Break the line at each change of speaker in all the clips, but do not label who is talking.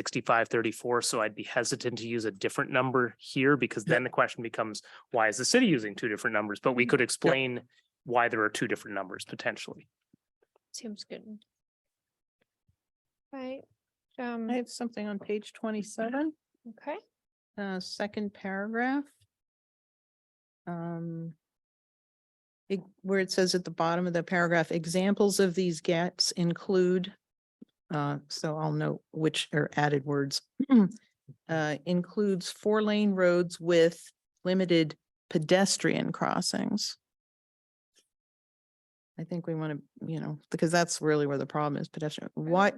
sixty-five thirty-four, so I'd be hesitant to use a different number here because
Yeah.
then the question becomes, why is the city using two different numbers? But
Mm-hmm.
we could explain why there are two different numbers potentially.
Seems good. Right, um,
I have something on page twenty-seven,
okay,
uh, second paragraph. Um. it- Where it says at the bottom of the paragraph, examples of these gaps include. Uh, so I'll note which are added words. Uh, includes four-lane roads with limited pedestrian crossings. I think we want to, you know, because that's really where the problem is pedestrian. Why?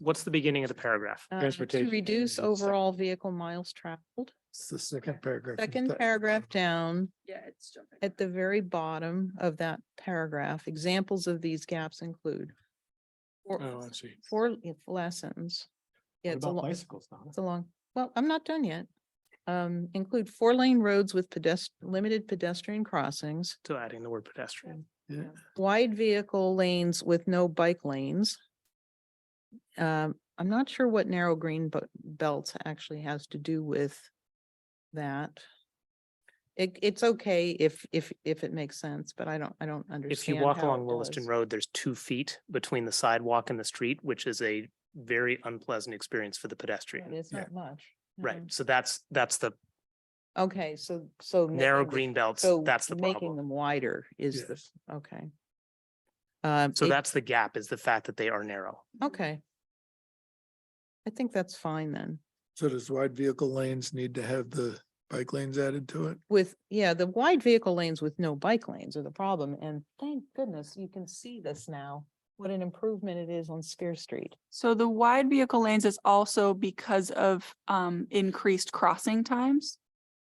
What's the beginning of the paragraph?
Uh, To
Transportation
reduce
conditions, sec-
overall vehicle miles traveled,
It's the second paragraph. from
second
the-
paragraph down
Yeah, it's jumping.
at the very bottom of that paragraph, examples of these gaps include. four-
Oh, I see.
Four le- lessons. Yeah,
What
it's a
about
long,
bicycles, Donna?
it's a long, well, I'm not done yet. Um, include four lane roads with pedest, limited pedestrian crossings,
To adding the word pedestrian.
Yeah.
wide vehicle lanes with no bike lanes. Um, I'm not sure what narrow green bu- belt actually has to do with that. It, it's okay if, if, if it makes sense, but I don't, I don't understand.
If you walk
how
along
it
Williston
does.
Road, there's two feet between the sidewalk and the street, which is a very unpleasant experience for the
Right,
pedestrian.
It's
Yeah.
not much.
Right,
Mhm.
so that's, that's the
Okay, so, so.
narrow
making the-
green belts,
so
that's the
Making
problem.
them wider is, the
Yes.
okay. Um,
So
it-
that's the gap, is the fact that they are narrow.
Okay. I think that's fine then.
So does wide vehicle lanes need to have the bike lanes added to it?
with, yeah, the wide vehicle lanes with no bike lanes are the problem, and thank goodness you can see this now. What an improvement it is on Spear Street.
So the wide vehicle lanes is also because of um increased crossing times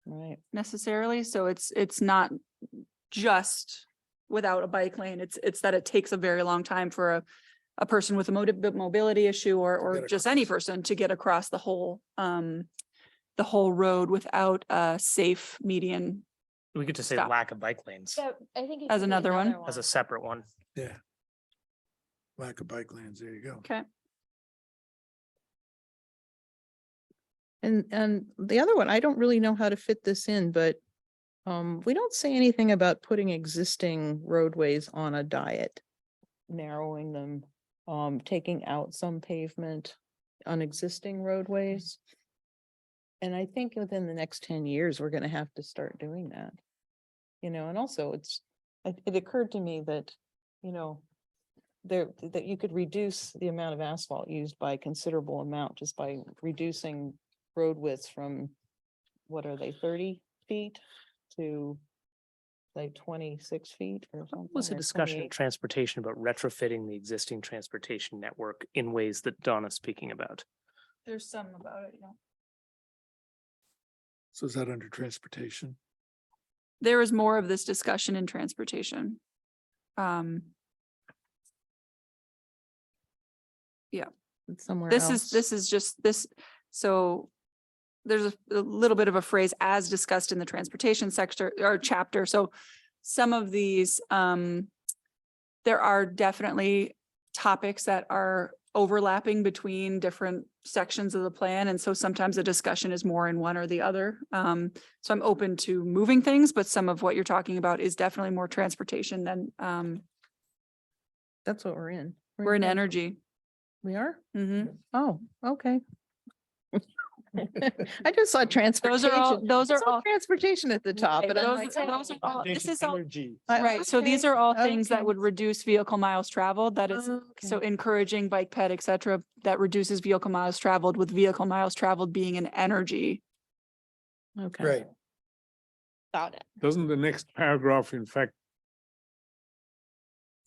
Right.
necessarily, so it's it's not just without a bike lane, it's it's that it takes a very long time for a a person with a motive mobility issue or or
get
just any
across.
person to get across the whole um the whole road without a safe median.
We could just say
Stop.
lack of bike lanes
so I think. it
As
could be
another one?
as a separate one.
Yeah. Lack of bike lanes, there you go.
Okay.
And, and the other one, I don't really know how to fit this in, but um, we don't say anything about putting existing roadways on a diet. Narrowing them, um, taking out some pavement on existing roadways. And I think within the next ten years, we're gonna have to start doing that. You know, and also it's, it, it occurred to me that, you know, there, that you could reduce the amount of asphalt used by a considerable amount just by reducing road widths from, what are they, thirty feet to like twenty-six feet or something?
was a
or
discussion
28.
of transportation about retrofitting the existing transportation network in ways that Donna's speaking about.
There's some about it, you know.
So is that under transportation?
There is more of this discussion in transportation. Um,
It's Somewhere
This is,
else.
this is just this, so there's a a little bit of a phrase as discussed in the transportation sector or chapter. So some of these, um, there are definitely topics that are overlapping between different sections of the plan. And so sometimes the discussion is more in one or the other. Um, so I'm open to moving things, but some of what you're talking about is definitely more transportation than, um,
That's what we're in.
we're in
trans-
energy.
We are?
hmm
Oh, okay. I just saw transportation.
Those are all, those
I
are
saw
all.
Transportation at the top,
Right,
but I'm
those-
like.
those are all- This is all,
Energy.
I-
right, so these
okay,
are all things
okay.
that would reduce vehicle miles traveled, that is, so
"Oh, Okay.
encouraging bike ped, et cetera, that reduces vehicle miles traveled with vehicle miles traveled being an energy.
Okay.
Right.
About it.
Doesn't the next paragraph, in fact,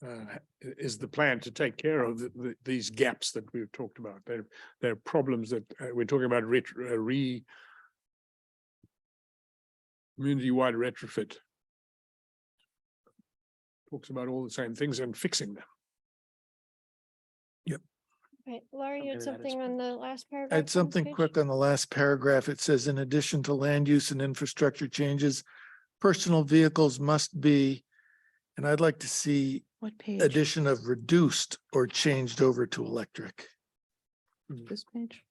uh, ha- i- is the plan to take care of the, the, these gaps that we've talked about? There, there are problems that, uh, we're talking about ret- uh, re community-wide retrofit. Talks about all the same things and fixing them.
Right, Laura, you
Maybe that
had
is
something
fine.
on the last paragraph? on
Add
this
something
page?
quick on the last paragraph. It says, in addition to land use and infrastructure changes, personal vehicles must be, and I'd like to see
What page?
addition of reduced or changed over to electric.
this page?